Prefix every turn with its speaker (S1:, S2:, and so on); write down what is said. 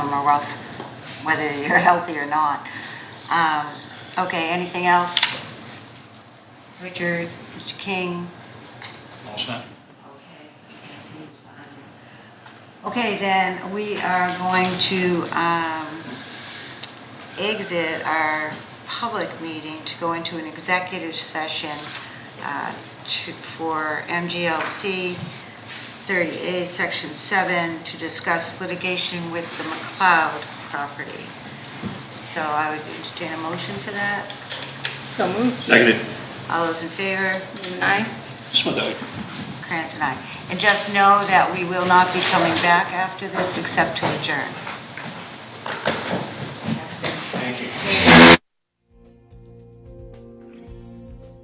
S1: warm or rough, whether you're healthy or not. Um, Okay, anything else? Richard, Mr. King?
S2: All set.
S1: Okay, can't see what's behind you. Okay, then we are going to um, exit our public meeting to go into an executive session uh, to- for MGLC 30A, Section 7, to discuss litigation with the McLeod property. So I would entertain a motion for that.
S3: So moved.
S2: Seconded.
S1: All those in favor?
S3: Aye.
S2: Smith, aye.
S1: Krantz and I. And just know that we will not be coming back after this except to adjourn.